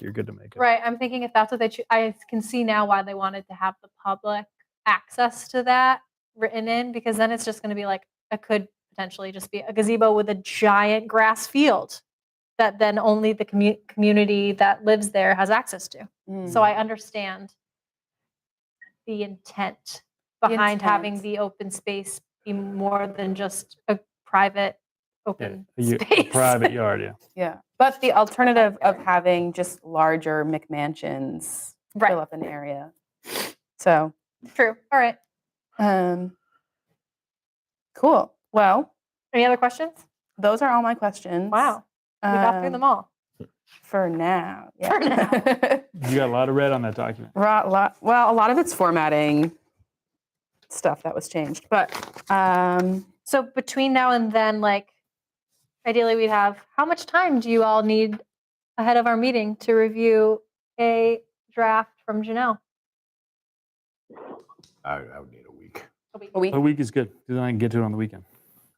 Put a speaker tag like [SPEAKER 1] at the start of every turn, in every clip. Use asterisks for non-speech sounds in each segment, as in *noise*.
[SPEAKER 1] You're good to make it.
[SPEAKER 2] Right. I'm thinking if that's what they choose, I can see now why they wanted to have the public access to that written in because then it's just going to be like it could potentially just be a gazebo with a giant grass field that then only the commu- community that lives there has access to. So
[SPEAKER 1] Mm.
[SPEAKER 2] I understand the intent
[SPEAKER 3] The
[SPEAKER 2] behind having
[SPEAKER 3] intent.
[SPEAKER 2] the open space be more than just a private
[SPEAKER 1] Yeah,
[SPEAKER 2] open
[SPEAKER 1] you- a
[SPEAKER 2] space.
[SPEAKER 1] private yard. Yeah.
[SPEAKER 3] yeah, but the alternative of having just larger McMansions
[SPEAKER 2] *laughs*
[SPEAKER 3] fill
[SPEAKER 2] right.
[SPEAKER 3] up an area. So,
[SPEAKER 2] True. All right.
[SPEAKER 3] um, cool. Well,
[SPEAKER 2] Any other questions?
[SPEAKER 3] those are all my questions.
[SPEAKER 2] Wow. We got through
[SPEAKER 3] Um,
[SPEAKER 2] them all.
[SPEAKER 3] for now.
[SPEAKER 2] For
[SPEAKER 3] *laughs*
[SPEAKER 2] now.
[SPEAKER 1] You got a lot of red on that document.
[SPEAKER 3] Ra- lot, well, a lot of it's formatting stuff that was changed, but um,
[SPEAKER 2] So between now and then, like ideally we'd have how much time do you all need ahead of our meeting to review a draft from Janelle?
[SPEAKER 4] I, I would need a week.
[SPEAKER 3] a week.
[SPEAKER 1] A week is good. 'cause Then I can get to it on the weekend.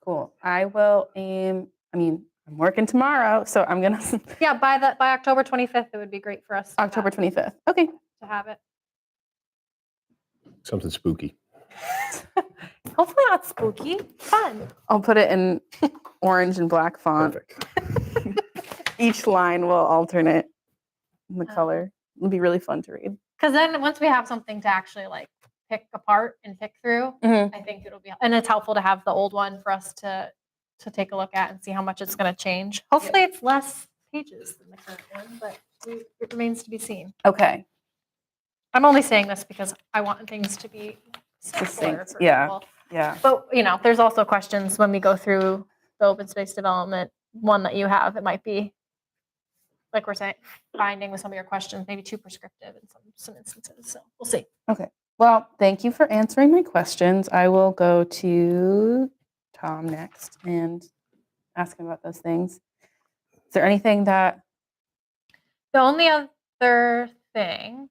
[SPEAKER 3] Cool. I will aim. I mean, I'm working tomorrow, so I'm gonna *laughs*
[SPEAKER 2] Yeah, by the by October 25th, it would be great for us to have-
[SPEAKER 3] October 25th. Okay.
[SPEAKER 2] to have it.
[SPEAKER 4] Something spooky.
[SPEAKER 2] Hopefully not spooky. Fun.
[SPEAKER 3] I'll put it in orange and black font.
[SPEAKER 4] Perfect.
[SPEAKER 3] Each line will alternate the
[SPEAKER 2] Oh.
[SPEAKER 3] color. It'll be really fun to read.
[SPEAKER 2] Because then once we have something to actually like pick apart and pick through,
[SPEAKER 3] Mhm.
[SPEAKER 2] I think it'll be and it's helpful to have the old one for us to to take a look at and see how much it's going to change. Hopefully, it's less pages than the current one, but we- it remains to be seen.
[SPEAKER 3] Okay.
[SPEAKER 2] I'm only saying this because I want things to be simpler
[SPEAKER 3] Succinct,
[SPEAKER 2] for
[SPEAKER 3] yeah.
[SPEAKER 2] people.
[SPEAKER 3] Yeah.
[SPEAKER 2] But you know, there's also questions when we go through the open space development one that you have. It might be like we're saying, finding with some of your questions, maybe too prescriptive in some some instances. So we'll see.
[SPEAKER 3] Well, thank you for answering my questions. I will go to Tom next and ask him about those things. Is there anything that
[SPEAKER 2] The only other thing,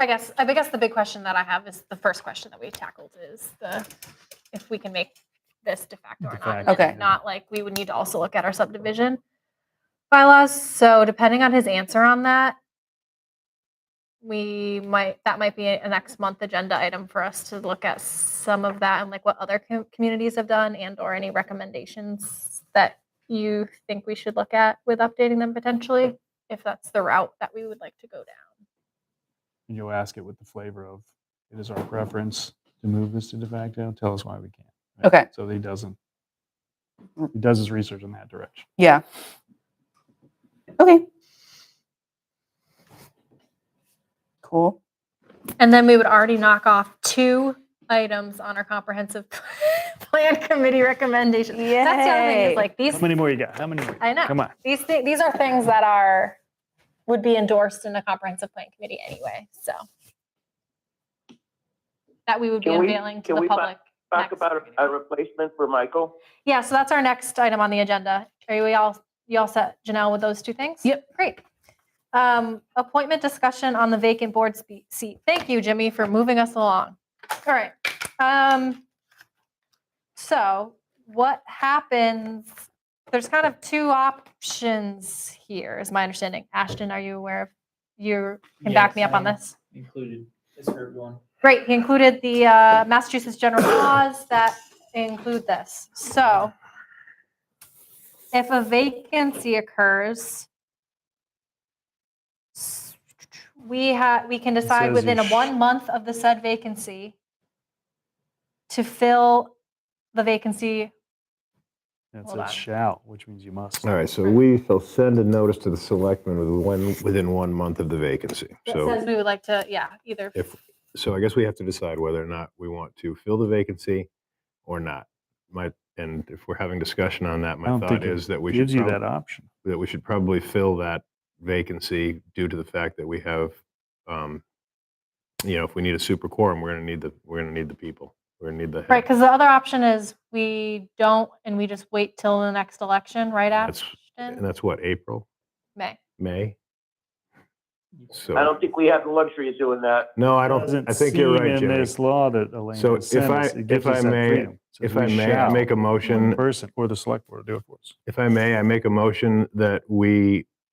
[SPEAKER 2] I guess, I guess the big question that I have is the first question that we tackled is the if we can make this de facto or
[SPEAKER 1] De
[SPEAKER 2] not. and
[SPEAKER 1] facto,
[SPEAKER 2] then
[SPEAKER 3] Okay.
[SPEAKER 2] If not, like we would need to also look at our subdivision bylaws. So depending on his answer on that, we might that might be a next month agenda item for us to look at some of that and like what other com- communities have done and or any recommendations that you think we should look at with updating them potentially if that's the route that we would like to go down
[SPEAKER 1] And you'll ask it with the flavor of it is our preference to move this to de facto. Tell us why we can't.
[SPEAKER 3] Okay.
[SPEAKER 1] So that he doesn't. He does his research in that direction.
[SPEAKER 3] Yeah. Okay. Cool.
[SPEAKER 2] and then we would already knock off two items on our comprehensive *laughs* plan committee recommendations that's the other thing
[SPEAKER 3] Yay.
[SPEAKER 2] is like these
[SPEAKER 1] How many more you got? How many more? you
[SPEAKER 2] I
[SPEAKER 1] got?
[SPEAKER 2] know.
[SPEAKER 1] Come on.
[SPEAKER 2] these th- these are things that are would be endorsed in a comprehensive plan committee anyway. So that we would be
[SPEAKER 5] Can we-
[SPEAKER 2] unveiling to
[SPEAKER 5] can
[SPEAKER 2] the
[SPEAKER 5] we fi-
[SPEAKER 2] public.
[SPEAKER 5] Talk
[SPEAKER 2] next
[SPEAKER 5] about
[SPEAKER 2] meeting.
[SPEAKER 5] a replacement for Michael.
[SPEAKER 2] Yeah, so that's our next item on the agenda. Are we all you all set, Janelle, with those two things?
[SPEAKER 3] Yep.
[SPEAKER 2] Great. Um, appointment discussion on the vacant board spe- seat. Thank you, Jimmy, for moving us along. All right. Um, so what happens? There's kind of two options here, is my understanding. Ashton, are you aware of? You can back
[SPEAKER 6] Yes,
[SPEAKER 2] me up on
[SPEAKER 6] I'm
[SPEAKER 2] this.
[SPEAKER 6] Included this group one.
[SPEAKER 2] Great. He included the uh, Massachusetts general *coughs* laws that include this. So if a vacancy occurs, s- we have, we can decide
[SPEAKER 1] says
[SPEAKER 2] within
[SPEAKER 1] you
[SPEAKER 2] a
[SPEAKER 1] sh-
[SPEAKER 2] one month of the said vacancy to fill the vacancy.
[SPEAKER 1] It
[SPEAKER 2] Hold on.
[SPEAKER 1] says shall, which means you must.
[SPEAKER 4] All right, so we shall send a notice to the selectmen with one, within one month of the vacancy.
[SPEAKER 2] That
[SPEAKER 4] So,
[SPEAKER 2] says we would like to, yeah, either.
[SPEAKER 4] if, so I guess we have to decide whether or not we want to fill the vacancy or not. My, and if we're having discussion on that,
[SPEAKER 1] I
[SPEAKER 4] my
[SPEAKER 1] don't think
[SPEAKER 4] thought
[SPEAKER 1] it
[SPEAKER 4] is that we should.
[SPEAKER 1] Gives you
[SPEAKER 4] prob-
[SPEAKER 1] that option.
[SPEAKER 4] that we should probably fill that vacancy due to the fact that we have, um, you know, if we need a super quorum, we're gonna need the, we're gonna need the people. We're gonna need the.
[SPEAKER 2] Right,
[SPEAKER 4] head.
[SPEAKER 2] because the other option is we don't and we just wait till the next election, right,
[SPEAKER 4] That's- And
[SPEAKER 2] Ashton?
[SPEAKER 4] that's what, April,
[SPEAKER 2] May.
[SPEAKER 4] May?
[SPEAKER 5] I
[SPEAKER 4] So,
[SPEAKER 5] don't think we have the luxury of doing that.
[SPEAKER 4] no, I don't,
[SPEAKER 1] Doesn't
[SPEAKER 4] I think you're
[SPEAKER 1] seem
[SPEAKER 4] right,
[SPEAKER 1] In
[SPEAKER 4] Jimmy.
[SPEAKER 1] this law that Elaine
[SPEAKER 4] So
[SPEAKER 1] just
[SPEAKER 4] if
[SPEAKER 1] sent
[SPEAKER 4] I-
[SPEAKER 1] us, it gives
[SPEAKER 4] if I
[SPEAKER 1] us that
[SPEAKER 4] may-
[SPEAKER 1] freedom. So
[SPEAKER 4] If
[SPEAKER 1] we
[SPEAKER 4] I may, I
[SPEAKER 1] shall,
[SPEAKER 4] make a
[SPEAKER 1] one
[SPEAKER 4] motion,
[SPEAKER 1] Person or the select board will do it for us.
[SPEAKER 4] if I may, I make a motion that we